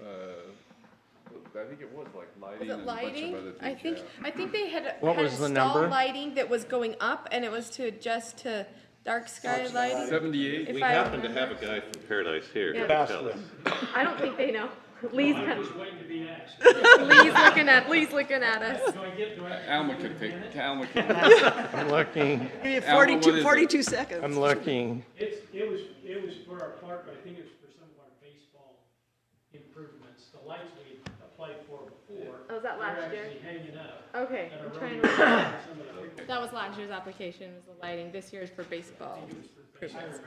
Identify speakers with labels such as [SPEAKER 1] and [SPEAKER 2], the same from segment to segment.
[SPEAKER 1] uh, think it was like lighting and
[SPEAKER 2] Was it
[SPEAKER 1] a bunch
[SPEAKER 2] lighting?
[SPEAKER 1] of other things.
[SPEAKER 2] I think,
[SPEAKER 1] yeah.
[SPEAKER 2] I think they had.
[SPEAKER 3] What
[SPEAKER 2] had
[SPEAKER 3] was the
[SPEAKER 2] installed
[SPEAKER 3] number?
[SPEAKER 2] Lighting that was going up and it was to adjust to dark sky lighting.
[SPEAKER 1] Seventy-eight,
[SPEAKER 2] If
[SPEAKER 4] We
[SPEAKER 2] I
[SPEAKER 4] happen to
[SPEAKER 2] remember.
[SPEAKER 4] have a guy from Paradise here.
[SPEAKER 2] Yeah.
[SPEAKER 4] to tell us.
[SPEAKER 2] I don't think they know. Lee's,
[SPEAKER 5] I
[SPEAKER 2] kind
[SPEAKER 5] was waiting to be asked.
[SPEAKER 2] of- Lee's looking at, Lee's looking at us.
[SPEAKER 5] Do I get, do I?
[SPEAKER 1] Alma can pick, Alma can.
[SPEAKER 3] I'm looking,
[SPEAKER 6] We have
[SPEAKER 1] Alma, what is it?
[SPEAKER 6] 42, 42 seconds.
[SPEAKER 3] I'm looking.
[SPEAKER 5] It's, it was, it was for our park, but I think it was for some of our baseball improvements. The lights we applied for before.
[SPEAKER 2] Oh, was that last year?
[SPEAKER 5] They're actually hanging up.
[SPEAKER 2] Okay,
[SPEAKER 5] And
[SPEAKER 2] I'm
[SPEAKER 5] a
[SPEAKER 2] trying
[SPEAKER 5] road.
[SPEAKER 2] to.
[SPEAKER 5] Some of the pictures
[SPEAKER 2] That was last year's application, was the lighting. This year's for baseball. improvements.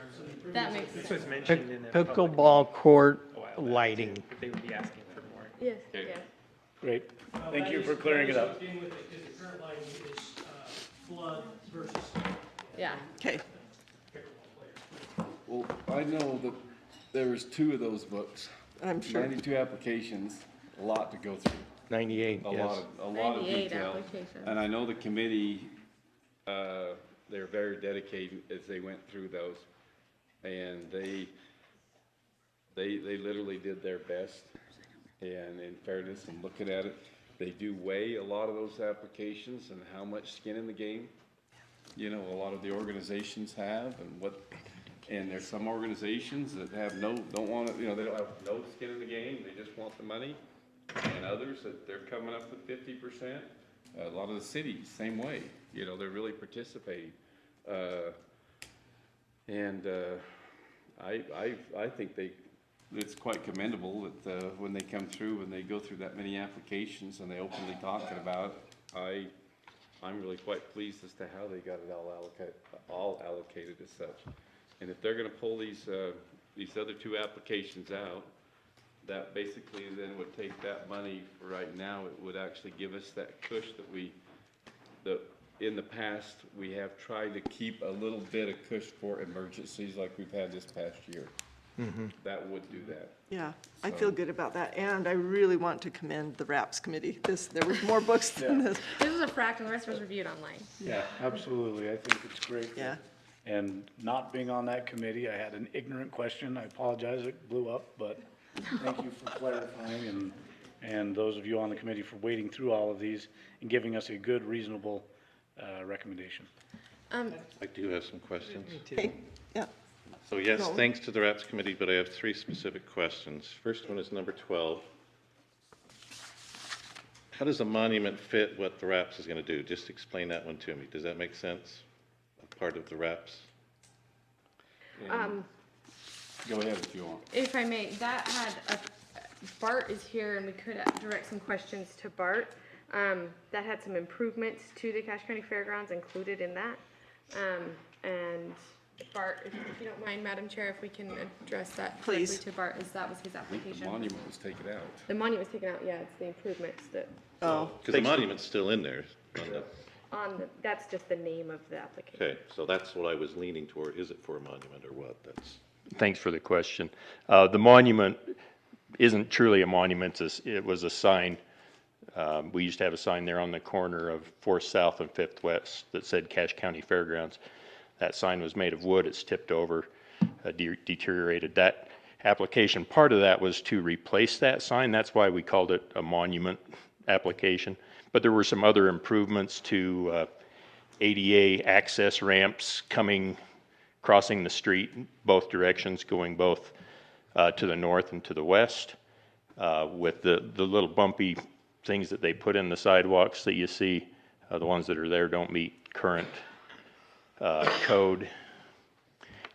[SPEAKER 2] That makes sense.
[SPEAKER 7] was mentioned in a public
[SPEAKER 3] Pickleball court
[SPEAKER 7] a while back, too.
[SPEAKER 3] lighting.
[SPEAKER 7] They would be asking for more.
[SPEAKER 2] Yes, yes.
[SPEAKER 3] Great.
[SPEAKER 5] Thank you for clearing it up. Because the current lighting is uh, flood versus
[SPEAKER 2] Yeah.
[SPEAKER 6] Okay,
[SPEAKER 5] pickleball players.
[SPEAKER 8] Well, I know that there was two of those books,
[SPEAKER 6] I'm sure.
[SPEAKER 8] ninety-two applications, a lot to go through,
[SPEAKER 3] 98,
[SPEAKER 8] a lot
[SPEAKER 3] yes.
[SPEAKER 8] of, a lot of
[SPEAKER 2] 98
[SPEAKER 8] detail.
[SPEAKER 2] applications.
[SPEAKER 8] And I know the committee, uh, they're very dedicated as they went through those. And they, they, they literally did their best. And in fairness, I'm looking at it, they do weigh a lot of those applications and how much skin in the game. you know, a lot of the organizations have and what, and there's some organizations that have no, don't want to, you know, they don't have no skin in the game, they just want the money. And others that they're coming up with fifty percent. A lot of the cities, same way, you know, they're really participating. Uh, and, uh, I, I, I think they, it's quite commendable that, uh, when they come through, and they go through that many applications and they openly talking about it. I, I'm really quite pleased as to how they got it all allocated, all allocated as such. And if they're gonna pull these, uh, these other two applications out, that basically then would take that money for right now, it would actually give us that push that we, that in the past, we have tried to keep a little bit of push for emergencies like we've had this past year. That would do that.
[SPEAKER 6] Yeah, I feel good about that. And I really want to commend the RAPS committee. This, there was more books than this.
[SPEAKER 2] This was a fract and the rest was reviewed online.
[SPEAKER 9] Yeah, absolutely. I think it's great.
[SPEAKER 6] Yeah.
[SPEAKER 9] And not being on that committee, I had an ignorant question. I apologize, it blew up, but thank you for clarifying and, and those of you on the committee for wading through all of these and giving us a good, reasonable, uh, recommendation.
[SPEAKER 2] Um,
[SPEAKER 4] I do have some questions.
[SPEAKER 6] Okay, yeah.
[SPEAKER 4] So yes,
[SPEAKER 6] No.
[SPEAKER 4] thanks to the RAPS committee, but I have three specific questions. First one is number 12. How does a monument fit what the RAPS is going to do? Just explain that one to me. Does that make sense? Part of the RAPS?
[SPEAKER 2] um,
[SPEAKER 8] Go ahead if you want.
[SPEAKER 2] if I may, that had a, Bart is here and we could direct some questions to Bart. Um, that had some improvements to the Cache County Fairgrounds included in that. Um, and Bart, if if you don't mind, Madam Chair, if we can address that directly
[SPEAKER 6] Please.
[SPEAKER 2] to Bart, as that was his
[SPEAKER 8] I think the
[SPEAKER 2] application.
[SPEAKER 8] monument was taken out.
[SPEAKER 2] The monument was taken out, yeah, it's the improvements that,
[SPEAKER 6] Oh,
[SPEAKER 4] Because the monument's still in there. on the-
[SPEAKER 2] on, the- that's just the name of the application.
[SPEAKER 4] Okay, so that's what I was leaning toward. Is it for a monument or what? That's,
[SPEAKER 10] Thanks for the question. Uh, The monument isn't truly a monument, it's- it was a sign. Um, We used to have a sign there on the corner of Fourth South and Fifth West that said Cache County Fairgrounds. That sign was made of wood, it's tipped over, uh, de- deteriorated. That application, part of that was to replace that sign, that's why we called it a monument application. But there were some other improvements to uh, ADA access ramps coming crossing the street in both directions, going both uh, to the north and to the west, uh, with the, the little bumpy things that they put in the sidewalks that you see. uh, The ones that are there don't meet current uh, code.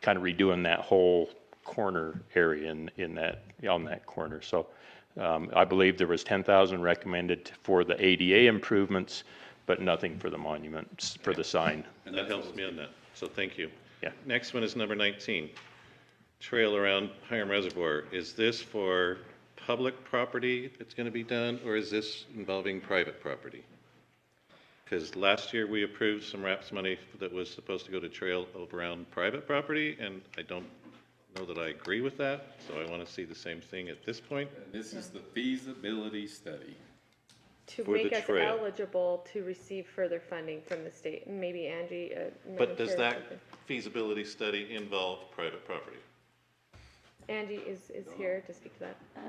[SPEAKER 10] Kind of redoing that whole corner area in, in that, on that corner. So um, I believe there was 10,000 recommended for the ADA improvements, but nothing for the monuments, for the sign.
[SPEAKER 4] and that helps me on that. So thank you.
[SPEAKER 10] Yeah.
[SPEAKER 4] Next one is number 19. Trail around Hiram Reservoir. Is this for public property that's going to be done, or is this involving private property? Because last year, we approved some RAPS money that was supposed to go to trail around private property, and I don't know that I agree with that, so I want to see the same thing at this point.
[SPEAKER 8] This is the feasibility study.
[SPEAKER 2] To
[SPEAKER 4] For the
[SPEAKER 2] make us
[SPEAKER 4] trail.
[SPEAKER 2] eligible to receive further funding from the state, and maybe Angie, uh, Madam
[SPEAKER 4] But does
[SPEAKER 2] Chair,
[SPEAKER 4] that
[SPEAKER 2] something.
[SPEAKER 4] feasibility study involve private property?
[SPEAKER 2] Angie is, is here to speak to that.